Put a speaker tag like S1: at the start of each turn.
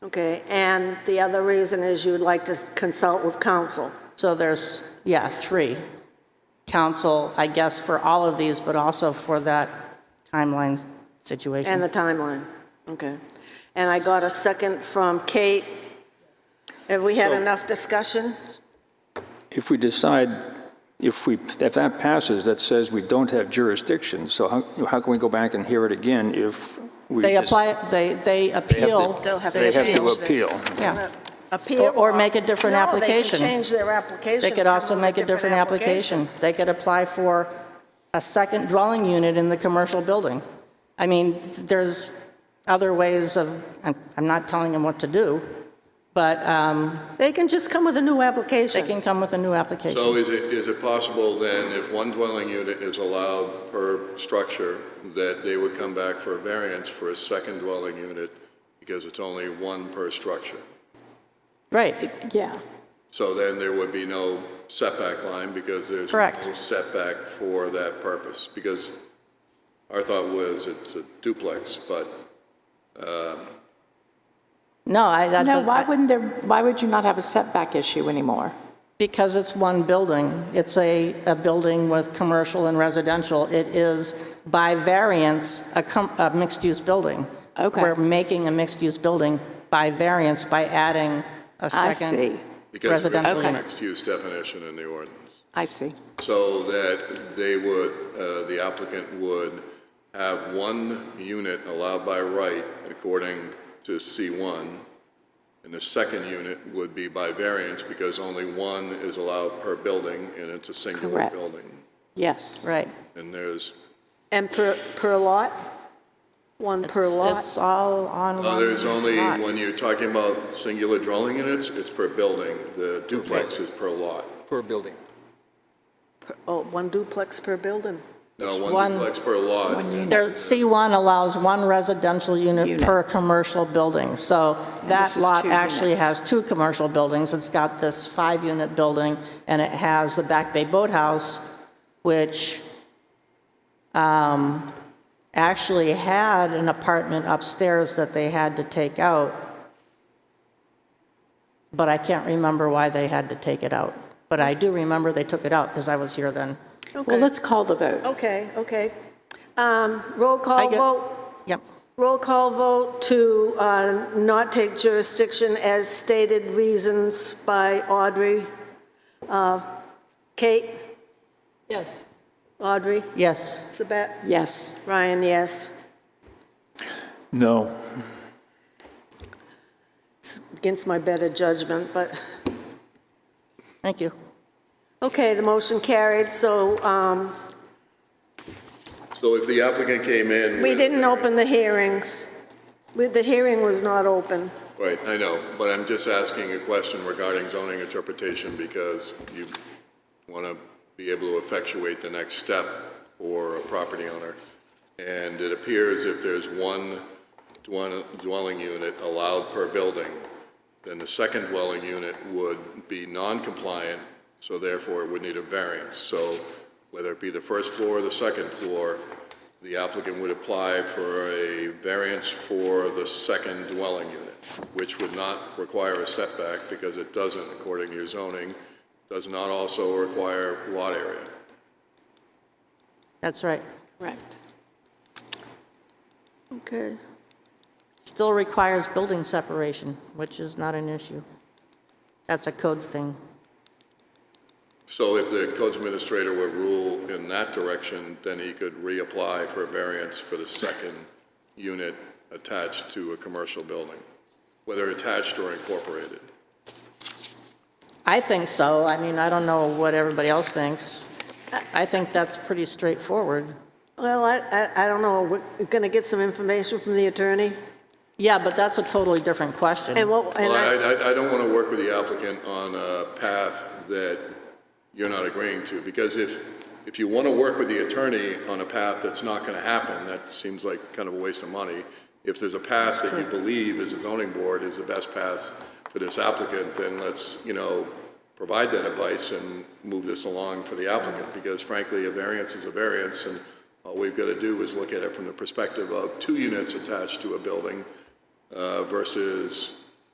S1: Okay, and the other reason is you'd like to consult with council.
S2: So there's, yeah, three. Council, I guess, for all of these, but also for that timeline
S1: And
S2: situation.
S1: the timeline, okay. And I got a second from Kate. Have we had
S3: So-
S1: enough discussion?
S3: If we decide, if we, if that passes, that says we don't have jurisdiction, so how, how can we go back and hear it again if we
S2: They
S3: just-
S2: apply, they, they
S3: have to-
S2: appeal.
S1: They'll have to
S3: They have to
S1: change
S3: appeal.
S1: this. Uh,
S2: Yeah.
S1: Appeal?
S2: Or- or make a different
S1: No, they
S2: application.
S1: can change their application.
S2: They could
S1: come
S2: also
S1: up
S2: make a
S1: with
S2: different application. They could apply for a second dwelling unit in the commercial building. I mean, there's other ways of, I'm I'm not telling them what to do, but um,
S1: They can just come with a new application.
S2: they can come with a new
S4: So
S2: application.
S4: is it, is it possible then, if one dwelling unit is allowed per structure, that they would come back for a variance for a second dwelling unit because it's only one per structure?
S2: Right,
S5: Yeah,
S4: So then there would be no setback line because there's
S2: Correct.
S4: no setback for that purpose? Because our thought was it's a duplex, but
S2: no, I, that-
S5: no, why wouldn't there, why would you not have a setback issue anymore?
S2: because it's one building. It's a, a building with commercial and residential. It is by variance a com- a mixed-use building.
S5: Okay.
S2: We're making a mixed-use building by variance by adding a
S5: I
S2: second.
S5: see,
S4: because there's
S2: Residential
S4: no
S5: Okay.
S4: mixed-use definition in the ordinance.
S5: I see.
S4: So that they would, uh, the applicant would have one unit allowed by right according to C1, and the second unit would be by variance because only one is allowed per building, and it's a singular
S5: Correct.
S4: building.
S5: Yes.
S2: Right.
S4: And there's,
S1: And per, per lot? One per
S2: It's-
S1: lot?
S2: It's all on one
S4: no, uh, there's only,
S2: lot.
S4: when you're talking about singular dwelling units, it's per building. The duplex is per lot.
S6: per building.
S1: Per- Oh, one duplex per building?
S4: No,
S2: one-
S4: one duplex per lot.
S2: There, C1 allows one residential unit
S5: Unit.
S2: per commercial building, so that
S5: this is
S2: lot
S5: two
S2: actually
S5: units.
S2: has two commercial buildings. It's got this five-unit building, and it has the Back Bay Boathouse, which um, actually had an apartment upstairs that they had to take out, but I can't remember why they had to take it out. But I do remember they took it out, because I was here then.
S5: Well, let's call the vote.
S1: Okay, okay. Um, Roll call
S2: get-
S1: vote?
S2: Yep.
S1: Roll call vote to uh, not take jurisdiction as stated reasons by Audrey. Uh, Kate,
S5: Yes.
S1: Audrey,
S2: Yes.
S1: Sabat,
S5: Yes.
S1: Ryan, yes.
S3: No.
S1: Against my better judgment, but,
S2: Thank you.
S1: okay, the motion carried, so um,
S4: So if the applicant came in.
S1: we
S4: with-
S1: didn't open the hearings. We- The hearing was not open.
S4: Right, I know, but I'm just asking a question regarding zoning interpretation because you want to be able to effectuate the next step for a property owner. And it appears if there's one dwell- dwelling unit allowed per building, then the second dwelling unit would be non-compliant, so therefore it would need a variance. So whether it be the first floor or the second floor, the applicant would apply for a variance for the second dwelling unit, which would not require a setback because it doesn't, according to your zoning, does not also require lot area.
S2: That's right.
S5: Correct.
S1: Okay.
S2: Still requires building separation, which is not an issue. That's a code thing.
S4: So if the codes administrator would rule in that direction, then he could reapply for a variance for the second unit attached to a commercial building, whether attached or incorporated.
S2: I think so. I mean, I don't know what everybody else thinks. I think that's pretty straightforward.
S1: Well, I, I- I don't know, we're going to get some information from the attorney?
S2: Yeah, but that's a totally different
S1: And
S2: question.
S1: what, and
S4: Well,
S1: I,
S4: I, I- I don't want to work with the applicant on a path that you're not agreeing to, because if, if you want to work with the attorney on a path that's not going to happen, that seems like kind of a waste of money. If there's a path that you believe as a zoning board is the best path for this applicant, then let's, you know, provide that advice and move this along for the applicant, because frankly, a variance is a variance, and all we've got to do is look at it from the perspective of two units attached to a building uh, versus